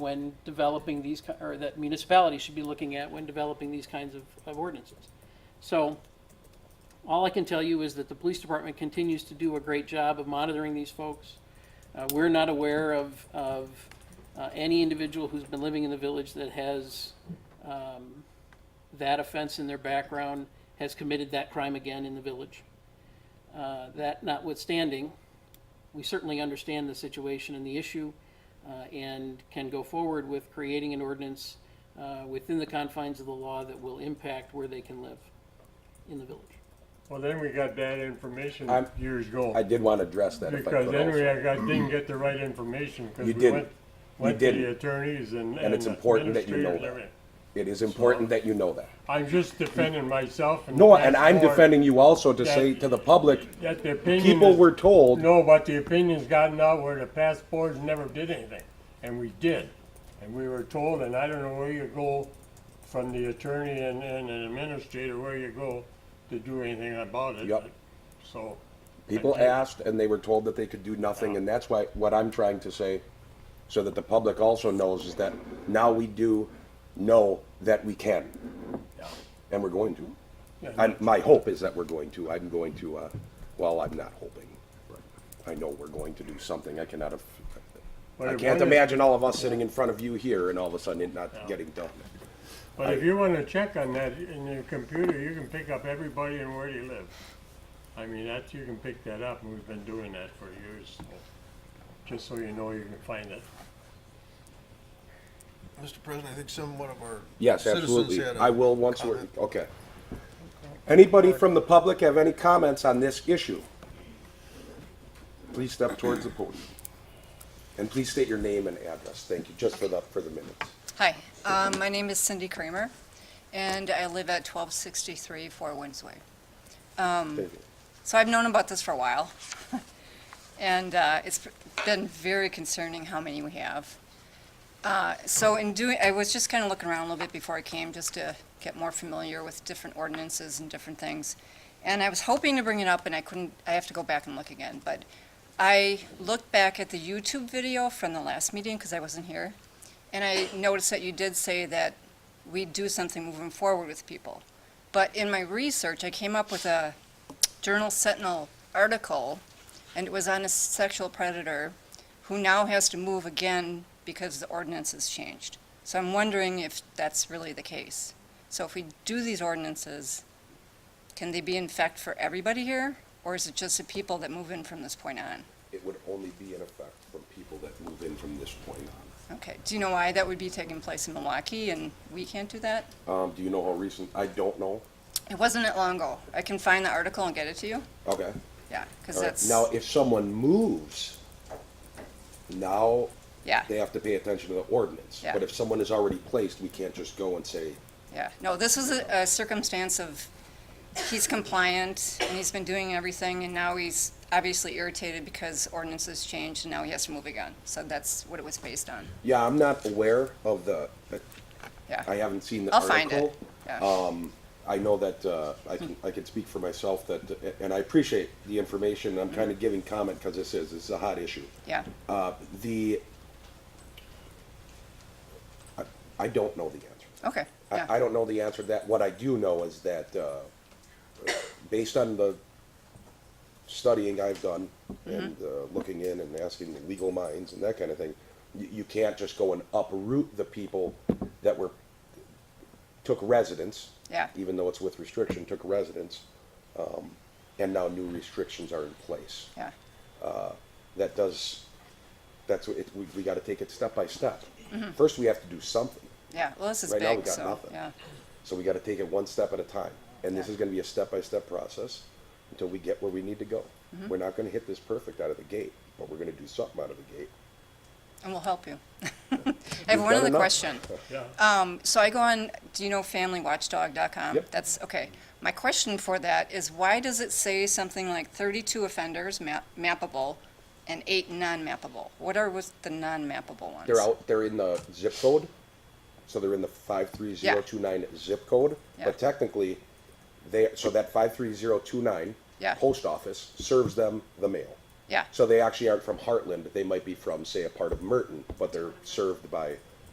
when developing these, ki- or that municipalities should be looking at when developing these kinds of, of ordinances. So, all I can tell you is that the police department continues to do a great job of monitoring these folks. Uh, we're not aware of, of, uh, any individual who's been living in the village that has, um, that offense in their background, has committed that crime again in the village. Uh, that notwithstanding, we certainly understand the situation and the issue, uh, and can go forward with creating an ordinance, uh, within the confines of the law that will impact where they can live in the village. Well, then we got bad information I'm- years ago. I did want to address that if I Because could then we also. got, didn't get the right information, because You we didn't. went, You went to the didn't. attorneys and. And it's the important that you know administrators, that. everything. It is important that you know that. I'm just defending myself and. No, the and I'm fact or defending you also to say that- to the public, That the opinion people is- were told, No, but the opinion's gotten out where the past boards never did anything, and we did. And we were told, and I don't know where you go from the attorney and, and an administrator, where you go to do anything about it. Yep. So. people asked and they were told that they could do nothing. And that's why, what I'm trying to say, so that the public also knows is that now we do know that we can. And we're going to. Yeah. I'm, my hope is that we're going to. I'm going to, uh, well, I'm not hoping. I know we're going to do something. I cannot have, But I if can't one is- imagine all of us sitting in front of you here and all of a sudden it not getting done. But if you wanna check on that in your computer, you can pick up everybody and where they live. I mean, that, you can pick that up, and we've been doing that for years, so, just so you know, you can find it. Mr. President, I think some one of our. Yes, citizens absolutely. had a I will once we're, comment. okay. Anybody from the public have any comments on this issue? Please step towards the podium. And please state your name and address. Thank you, just for the, for the minutes. Hi, um, my name is Cindy Kramer, and I live at 1263 Four Winds Way. Thank you. So I've known about this for a while, and uh, it's been very concerning how many we have. Uh, So in doing, I was just kind of looking around a little bit before I came, just to get more familiar with different ordinances and different things. And I was hoping to bring it up, and I couldn't, I have to go back and look again, but I looked back at the YouTube video from the last meeting, because I wasn't here, and I noticed that you did say that we do something moving forward with people. But in my research, I came up with a Journal Sentinel article, and it was on a sexual predator who now has to move again because the ordinance has changed. So I'm wondering if that's really the case. So if we do these ordinances, can they be in effect for everybody here? Or is it just the people that move in from this point on? It would only be in effect from people that move in from this point on. Okay, do you know why that would be taking place in Milwaukee and we can't do that? Um, do you know how recent? I don't know. It wasn't that long ago. I can find the article and get it to you. Okay. Yeah, because All right. that's, Now, if someone moves, now yeah, they have to pay attention to the ordinance. Yeah. But if someone is already placed, we can't just go and say, yeah. No, this was a a circumstance of, he's compliant and he's been doing everything and now he's obviously irritated because ordinances changed and now he has to move again. So that's what it was based on. yeah, I'm not aware of the, I Yeah, haven't seen the I'll article. find it. Yeah, Um, I know that, uh, I can, I can speak for myself that, and I appreciate the information, I'm kind of Mm-hmm. giving comment because this is, this is a hot issue. yeah, Uh, the, I, I don't know the answer. okay, yeah. I, I don't know the answer to that, what I do know is that, uh, based on the studying I've done Mm-hmm. and, uh, looking in and asking the legal minds and that kind of thing, you, you can't just go and uproot the people that were, took residence Yeah. even though it's with restriction, took residence, um, and now new restrictions are in place. Yeah, That does, that's, what it, we, we gotta take it step by step. Mm-hmm. First, we have to do something, yeah, well, this is Right now, we big, got so, nothing. yeah, so we gotta take it one step at a time. And this Yeah. is gonna be a step-by-step process until we get where we need to go. Mm-hmm. We're not gonna hit this perfect out of the gate, but we're gonna do something out of the gate. and we'll help you. I We've have one done other enough. question. Yeah. Um, so I go on, do you know familywatchdog.com? Yep. That's, okay. My question for that is why does it say something like thirty-two offenders map, mappable and eight non-mappable? What are with the non-mappable ones? They're out, they're in the zip code, so they're in the five-three-zero-two-nine zip code. Yeah. But technically, they, so that five-three-zero-two-nine Yeah. post office serves them the mail. Yeah, So they actually aren't from Heartland, they might be from, say, a part of Merton, but they're served by